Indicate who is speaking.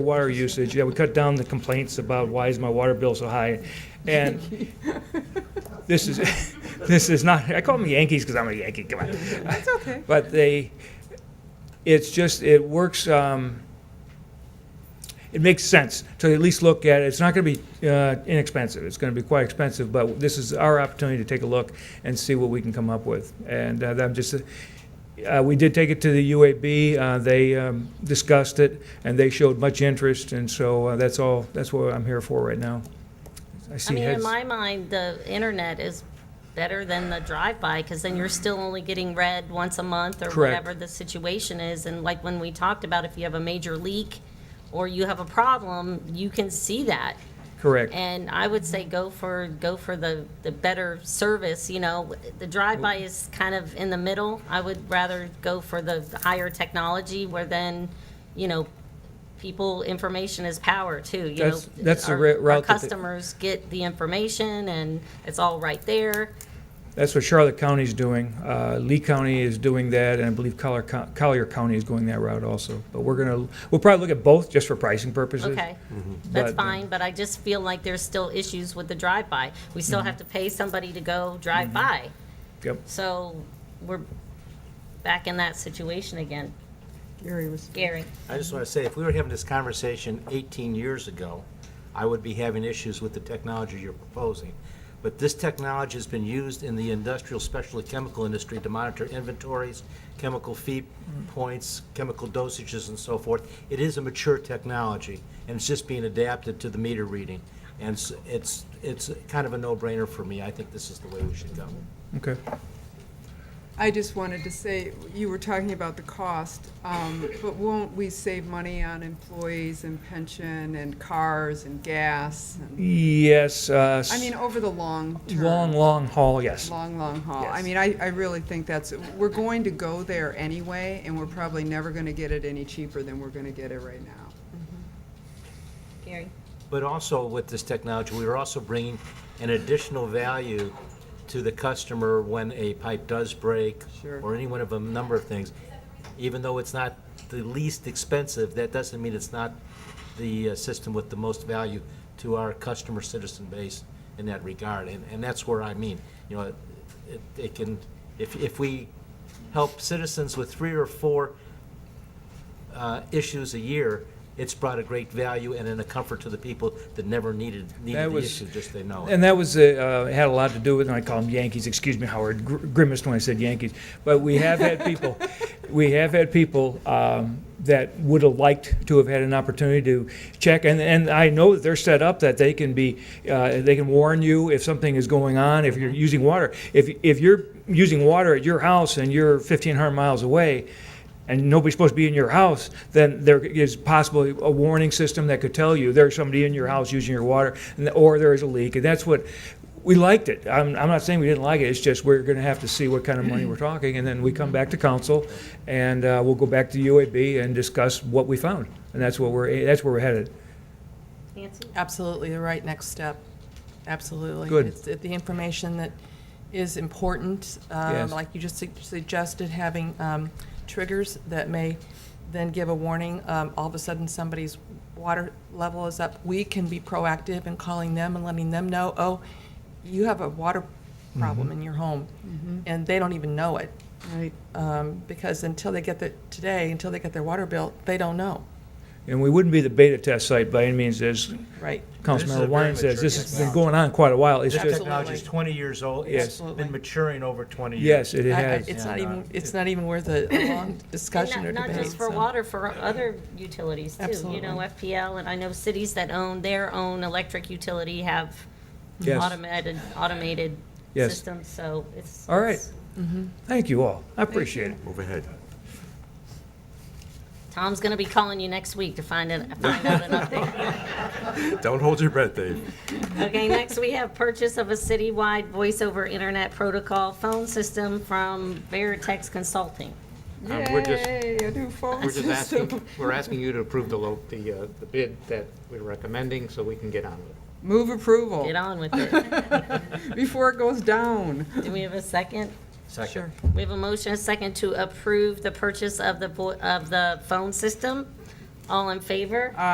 Speaker 1: Water usage, yeah, we cut down the complaints about why is my water bill so high? And this is, this is not, I call them Yankees because I'm a Yankee, come on.
Speaker 2: It's okay.
Speaker 1: But they, it's just, it works, um, it makes sense to at least look at, it. it's not going to be uh, inexpensive, it's going to be quite expensive, but this is our opportunity to take a look and see what we can come up with. And uh, I'm just, uh, we did take it to the UAB, uh, they um, discussed it, and they showed much interest, and so uh, that's all, that's what I'm here for right now. I
Speaker 3: I
Speaker 1: see
Speaker 3: mean, in
Speaker 1: heads.
Speaker 3: my mind, the internet is better than the drive-by, because then you're still only getting read once a month or
Speaker 1: Correct.
Speaker 3: whatever the situation is. And like when we talked about, if you have a major leak or you have a problem, you can see that.
Speaker 1: Correct,
Speaker 3: And I would say go for, go for the, the better service, you know. The drive-by is kind of in the middle. I would rather go for the higher technology where then, you know, people, information is power too, you know.
Speaker 1: That's- that's the
Speaker 3: Our-
Speaker 1: ra- route that
Speaker 3: Our
Speaker 1: they-
Speaker 3: customers get the information and it's all right there.
Speaker 1: that's what Charlotte County's doing, Uh, Lee County is doing that, and I believe Collier Co- Collier County is going that route also. But we're going to, we'll probably look at both, just for pricing purposes.
Speaker 3: Okay, that's
Speaker 1: But, uh,
Speaker 3: fine, but I just feel like there's still issues with the drive-by. We
Speaker 1: Mm-hmm.
Speaker 3: still have to pay somebody to go drive by.
Speaker 1: Yep.
Speaker 3: So we're back in that situation again.
Speaker 2: Gary was.
Speaker 3: Gary?
Speaker 4: I just want to say, if we were having this conversation 18 years ago, I would be having issues with the technology you're proposing. But this technology has been used in the industrial, especially chemical industry, to monitor inventories, chemical feed points, chemical dosages, and so forth. It is a mature technology, and it's just being adapted to the meter reading. And s- it's, it's kind of a no-brainer for me. I think this is the way we should go.
Speaker 1: Okay.
Speaker 2: I just wanted to say, you were talking about the cost, um, but won't we save money on employees and pension and cars and gas? and-
Speaker 1: Yes. uh,
Speaker 2: I mean, over the long term.
Speaker 1: Long, long haul, yes.
Speaker 2: Long, long haul. I
Speaker 1: Yes.
Speaker 2: mean, I, I really think that's, we're going to go there anyway, and we're probably never gonna get it any cheaper than we're gonna get it right now.
Speaker 3: Gary?
Speaker 4: But also with this technology, we are also bringing an additional value to the customer when a pipe does break.
Speaker 2: Sure.
Speaker 4: Or any one of a number of things. Even though it's not the least expensive, that doesn't mean it's not the uh, system with the most value to our customer citizen base in that regard. And, and that's where I mean, you know, it, it can, if, if we help citizens with three or four uh, issues a year, it's brought a great value and in a comfort to the people that never needed,
Speaker 1: That
Speaker 4: needed the
Speaker 1: was-
Speaker 4: issue, just they know it.
Speaker 1: And that was, uh, uh, had a lot to do with, and I call them Yankees, excuse me, Howard gr- grimaced when I said Yankees. But we have had people, we have had people um, that would have liked to have had an opportunity to check. And, and I know that they're set up that they can be, uh, they can warn you if something is going on, if you're using water. If, if you're using water at your house and you're 1,500 miles away, and nobody's supposed to be in your house, then there is possibly a warning system that could tell you there's somebody in your house using your water, and- or there is a leak, and that's what, we liked it. I'm, I'm not saying we didn't like it, it's just we're gonna have to see what kind of money we're talking, and then we come back to council, and uh, we'll go back to UAB and discuss what we found, and that's what we're, that's where we're headed.
Speaker 3: Nancy?
Speaker 5: Absolutely, the right next step, absolutely.
Speaker 1: Good.
Speaker 5: It's it- the information that is important, um,
Speaker 1: Yes.
Speaker 5: like you just su- suggested, having um, triggers that may then give a warning. Um, All of a sudden, somebody's water level is up. We can be proactive in calling them and letting them know, oh, you have a water
Speaker 1: Mm-hmm.
Speaker 5: problem in your home, and they don't even know it.
Speaker 2: Right.
Speaker 5: Um, Because until they get the, today, until they get their water bill, they don't know,
Speaker 1: And we wouldn't be the beta test site by any means, as
Speaker 5: right?
Speaker 4: This is a
Speaker 1: Councilmember
Speaker 4: very
Speaker 1: Wine says,
Speaker 4: mature
Speaker 1: this has been
Speaker 4: technology.
Speaker 1: going on quite a while, it's
Speaker 4: This
Speaker 1: just,
Speaker 4: technology is 20 years old. It's
Speaker 5: Absolutely.
Speaker 4: been maturing over 20 years.
Speaker 1: yes, it
Speaker 5: I- I-
Speaker 1: has.
Speaker 5: It's not
Speaker 4: And, uh,
Speaker 5: even, it's not even worth a a long
Speaker 3: And
Speaker 5: discussion or
Speaker 3: not-
Speaker 5: debate.
Speaker 3: Not just for
Speaker 5: so.
Speaker 3: water, for other utilities too. You
Speaker 5: Absolutely.
Speaker 3: know, FPL, and I know cities that own their own electric utility have
Speaker 1: Yes.
Speaker 3: automated, automated
Speaker 1: Yes.
Speaker 3: systems, so it's.
Speaker 1: All right.
Speaker 3: it's-
Speaker 1: Thank you all, I appreciate it.
Speaker 6: Move ahead.
Speaker 3: Tom's gonna be calling you next week to find out, find out an update.
Speaker 6: Don't hold your breath, Dave.
Speaker 3: Okay, next we have purchase of a citywide voice over internet protocol phone system from Veritex Consulting.
Speaker 7: Um, We're just,
Speaker 2: Yay, a new phone
Speaker 7: we're just
Speaker 2: system.
Speaker 7: asking, we're asking you to approve the, lo- the, uh, the bid that we're recommending so we can get on with it.
Speaker 2: Move approval
Speaker 3: Get on with it.
Speaker 2: before it goes down.
Speaker 3: Do we have a second?
Speaker 4: Second.
Speaker 3: We have a motion, a second, to approve the purchase of the, vo- of the phone system. All in favor?